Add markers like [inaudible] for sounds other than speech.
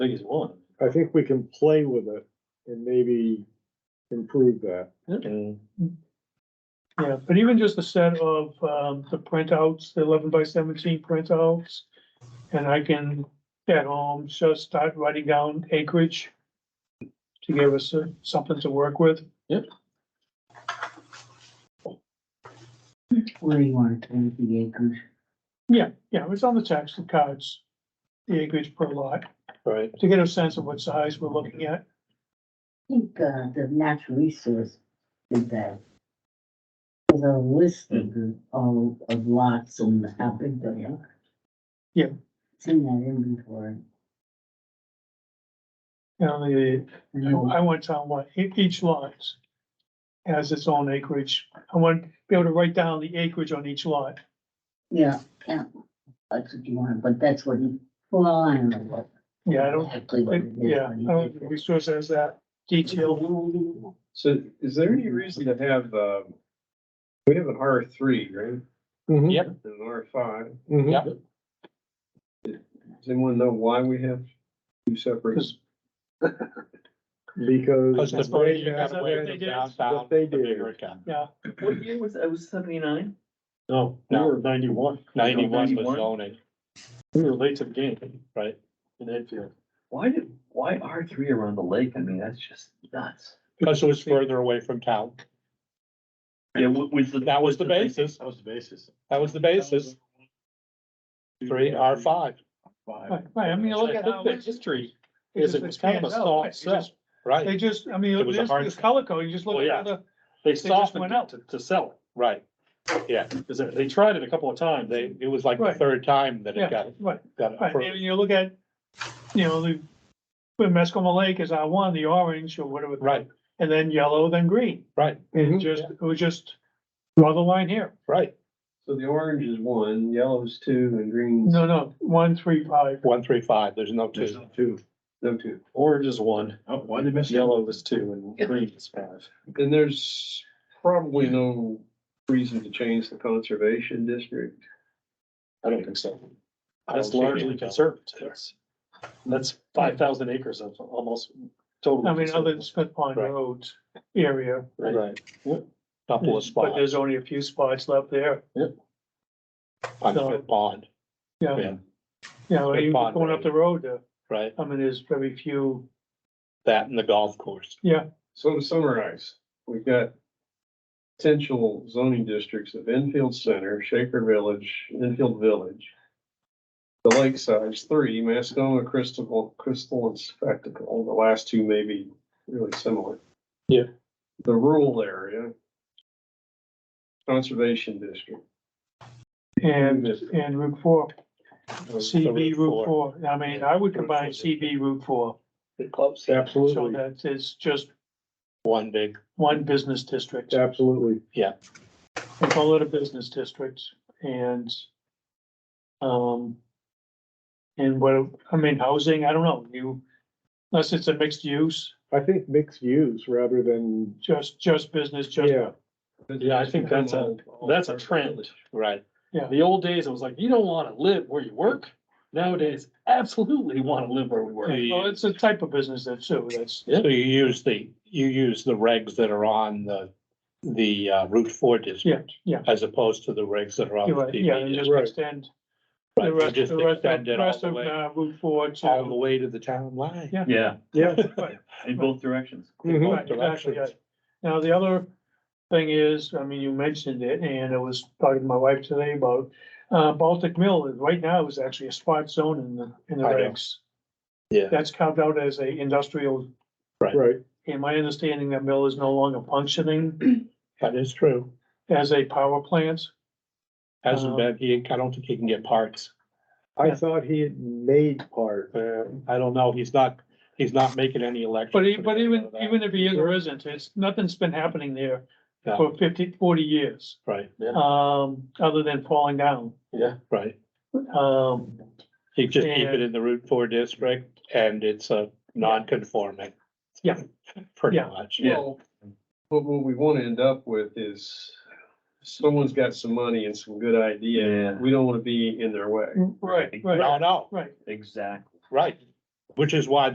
think he's willing. I think we can play with it and maybe improve that. Yeah, but even just a set of, um, the printouts, the eleven by seventeen printouts. And I can, at home, just start writing down acreage. To give us uh, something to work with. Where do you want to turn the acres? Yeah, yeah, it's on the tax cards. The acreage per lot, Right. to get a sense of what size we're looking at. I think, uh, the natural resource did that. There's a list of the, all of lots and how big they are. Yeah. It's in that inventory. You know, the, I want town what, e- each lot. Has its own acreage. I want to be able to write down the acreage on each lot. Yeah, yeah, that's what you want, but that's what he, well, I don't know what. Yeah, I don't, Exactly what it is. yeah, but I he don't, did think that. resource has that detail. So is there any reason to have, um, we have an R three, right? Mhm, Yep. And an R five. mhm. Yep. Does anyone know why we have two [laughs] separate? Because. the they further you have got away that- from they did. downtown, What the they did. bigger it got. What year was, I was seventy-nine? No, we No. were ninety-one. Ninety-one was 91? zoning. We were late to the game, right, in Enfield, Why did, why R three around the lake? I mean, that's just nuts. Because because it was further away from town. Yeah, was the. That was the basis, That was the basis. that was the basis, three R five. Right, right, I mean, look at how. The history is it was kind of a soft set, They right? just, I It mean, was a this, hard this set. color code, you just look Well, yeah. at the, They just softened went it out. to, to sell Right, it, because they tried it a couple of times, they, they, it was like the Right. third time that Yeah. it got, right, got right, approved. and you look at, you know, the. When Mascoma Lake is I one, the orange or whatever. Right, And then yellow, then green, Mm-hmm. Mhm. just, it was just, draw the line here, right, So the orange is one, yellow is two, and green's no, no, one, three, five, one, three, five, there's no There's two. two. No two. orange is one, Oh, why did I miss yellow is two, and green is five. And there's probably no reason to change the conservation district. I don't think so. I That's don't see largely any. conservative. That's five thousand acres of almost I totally. mean, other than conservative. Smith Pond Right. Road area. Right. Couple of But spots there's only a few spots left there, on uh, the pond, yeah, Yeah. you know, Smith even Pond going up Road. the road, there. right? I mean, there's very few, That and the golf course. yeah, So to summarize, we've got potential zoning districts of Enfield Center, Shaker Village, Enfield Village. The Lakeside's three, Mascoma, Crystal, Crystal and Spectacle, the last two may be really similar. Yeah. The rural area. Conservation district. and, and Route four. Route CB Route four. four, I mean, I would combine CB Route four, Clubs. so Absolutely, that is just One big, one business district. absolutely. We call it a business district and um and what, I mean, housing, I don't know, you, unless it's a mixed use, I think mixed use rather than, just, just business, just, yeah, Yeah, I think that's a- that's a trend. right, The old days, it was like, you don't wanna live where you work. Nowadays, absolutely wanna live where we work. well, it's a type of business that too, that's, so you use the, you use the regs that are on the, the uh, Route Four district. yeah. As opposed to the regs that are on you're the right, yeah, and TV. just Right. extend. The Right, you rest, Just the rest of, extend it all rest the of way, uh, Route four all the to. way to the town line. Yeah. Yeah, yeah. Right. in both directions. mhm. Both Right, exactly, directions. yeah. Now, the other thing is, I mean, you mentioned it, and I was talking to my wife today about, uh, Baltic Mill, and right now is actually a spot zone in the, in the I know. regs. Yeah. That's carved out as a industrial, [laughs] Right, and my understanding that mill is no longer functioning [clears throat] That is true. as a power plant. Hasn't Um, been, he, I don't think he can get parts. I thought he had made part, Uh, I don't know, he's not, he's not making any elections. But e- but even, even if he is or isn't, it's, nothing's been happening there No. for 50, 40 years, Right, um, other than falling down. Yeah, right. Um, He just keep it And- in the Route Four district and it's a non-conforming. Yeah. Pretty Yeah. much. Yeah. Well, But what we wanna end up with is someone's got some money and some good idea. Yeah. We don't wanna be in their way. right, right, No, no, right. Exactly. right. which is why